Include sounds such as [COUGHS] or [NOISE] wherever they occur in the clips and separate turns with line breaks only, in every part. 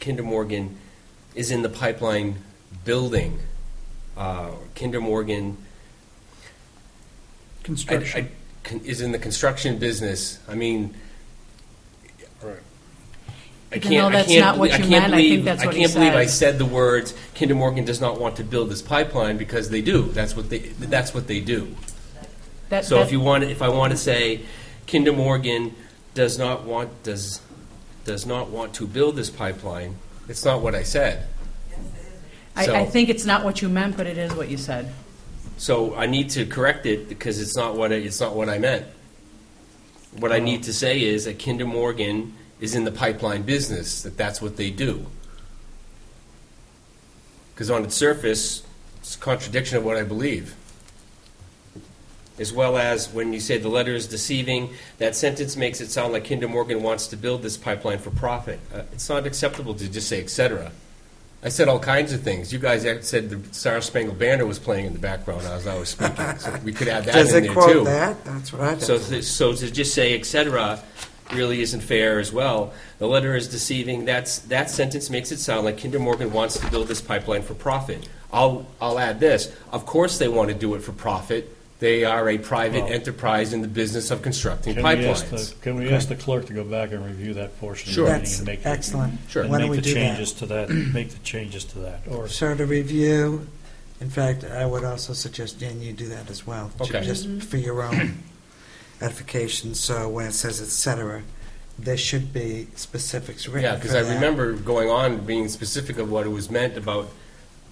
Kinder Morgan is in the pipeline building, uh, Kinder Morgan I- I-
Construction.
con- is in the construction business, I mean, I
Even
can't,
though
I
that's
can't,
not what
belie- I
you
can't
meant, I think
believe,
that's
I
what he
can't believe I
said.
said the words, Kinder Morgan does not want to build this pipeline, because they do, that's what they, that's what they do.
That-
So if
that-
you want, if I want to say, Kinder Morgan does not want, does, does not want to build this pipeline, it's not what I said.
I, I
so-
think it's not what you meant, but it is what you said.
So I need to correct it because it's not what I, it's not what I meant. What I need to say is that Kinder Morgan is in the pipeline business, that that's what they do. Because on its surface, it's a contradiction of what I believe. As well as when you say the letter is deceiving, that sentence makes it sound like Kinder Morgan wants to build this pipeline for profit. Uh, It's not acceptable to just say et cetera. I said all kinds of things. You guys act- said the Star Spangled Banner was playing in the background as I was speaking. So we could add that
Does
in
it
there too.
quote that? That's what I
So,
thought.
th- so to just say et cetera really isn't fair as well. The letter is deceiving. That's, that sentence makes it sound like Kinder Morgan wants to build this pipeline for profit. I'll, I'll add this. Of course they want to do it for profit. They are a private
Well-
enterprise in the business of constructing
Can we ask
pipelines.
the- Can we ask the clerk to go back and review that portion of
Sure.
the meeting
That's
and make? the-
excellent.
Sure.
and
Why don't we
make the
do
changes
that?
to that, [CLEARS THROAT] make the changes to that, or
So to review, in fact, I would also suggest, Dan, you do that as well. ju-
Okay.
Just for your own [COUGHS] edification, so when it says et cetera, there should be specifics written
Yeah,
for
because I
that.
remember going on being specific of what it was meant about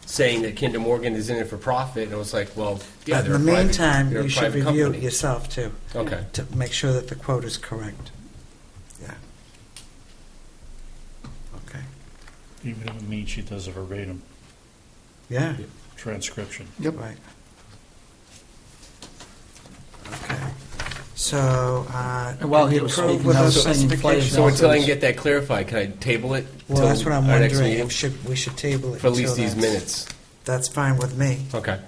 saying that Kinder Morgan is in it for profit, and I was like, well, yeah,
But in
they're a
the
private,
meantime,
they're a
you should
private
review it
company.
yourself too,
Okay,
to make sure that the quote is correct. Yeah. Okay.
even if it means she does a verbatim
Yeah,
transcription.
Yep.
right. Okay. So, uh,
And while
did
he
you
was
approve
speaking,
with
I
those
was saying inflation.
specifications?
so until I can get that clarified, can I table it?
Well,
till
uh, that's what I'm
our next
wondering,
meeting?
if should, we should table it.
For at least
until
these
that's-
minutes.
That's fine with me.
Okay.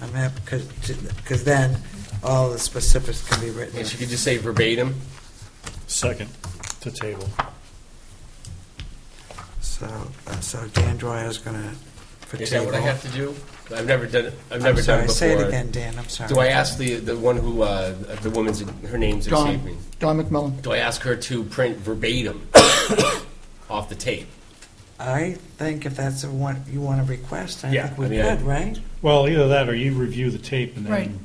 I'm happy, because, because then all the specifics can be written.
If you could just say verbatim,
Second to table.
So, uh, so Dan Dwyer's gonna. for
is that what I
table.
have to do? I've never done, it. I've
I'm
never done it
sorry,
before.
Say it again, Dan, I'm sorry.
Do I ask the, the one who, uh, the woman's, her name's
Don.
escaping me?
Don McMillan.
Do I ask her to print verbatim off the tape?
I think if that's what you want to request, I
Yeah,
think we
I mean, I-
could, right?
Well, either that or you review the tape and
Right.
then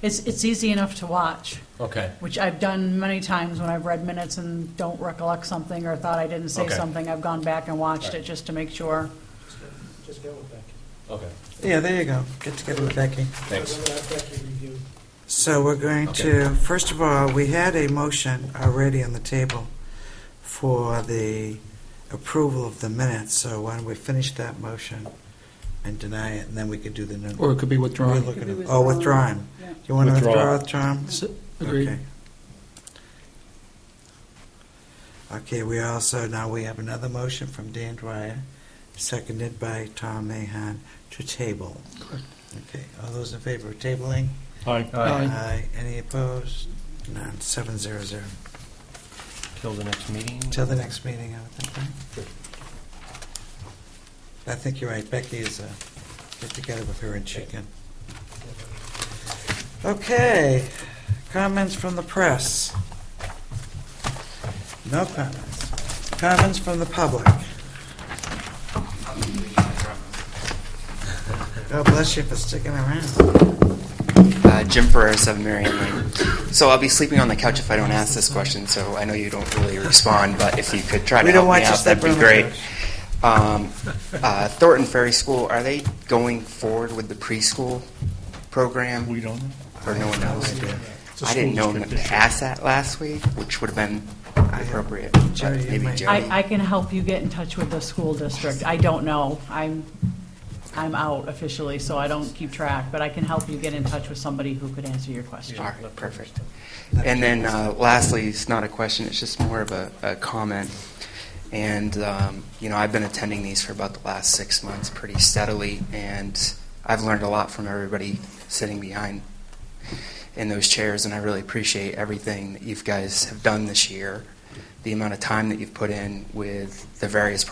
It's, it's easy enough to watch,
Okay.
which I've done many times when I've read minutes and don't recollect something or thought I didn't say
Okay.
something. I've gone back and watched it just to make sure.
Okay.
Yeah, there you go, get together with Becky.
Thanks.
So we're going to, first of all, we had a motion already on the table for the approval of the minutes, so why don't we finish that motion and deny it, and then we could do the new.
Or it could be
We're
withdrawn.
looking at- Oh, withdrawn.
Yeah.
You want to
Withdraw.
withdraw, Tom?
S- Agreed.
Okay. Okay, we also, now we have another motion from Dan Dwyer, seconded by Tom Mahon, to table.
Correct.
Okay, all those in favor of tabling?
I
Uh,
Aye.
Any opposed? None, seven zero zero.
Till the next meeting?
Till the next meeting, I would think, right? I think you're right, Becky is, uh, get together with her and she can. Okay, comments from the press? No comments. Comments from the public? God bless you for sticking around.
Uh, Jim Ferrer, 7 Marion Lane. So I'll be sleeping on the couch if I don't ask this question, so I know you don't really respond, but if you could try
We
to
don't
help
want
me
you
out, that'd be
sleeping on the
great. Um, uh, Thornton Ferry School, are they going forward with the preschool program?
We don't. know.
Or no one knows?
It's a
I didn't
school
know them
district
to
issue.
ask that last week, which would have been appropriate. but
Jerry, you
Maybe
might-
Jerry.
I, I can help you get in touch with the school district. I don't know. I'm, I'm out officially, so I don't keep track, but I can help you get in touch with somebody who could answer your question.
All right, perfect. And then uh, lastly, it's not a question, it's just more of a, a comment. And, um, you know, I've been attending these for about the last six months pretty steadily, and I've learned a lot from everybody sitting behind in those chairs, and I really appreciate everything that you guys have done this year, the amount of time that you've put in with the various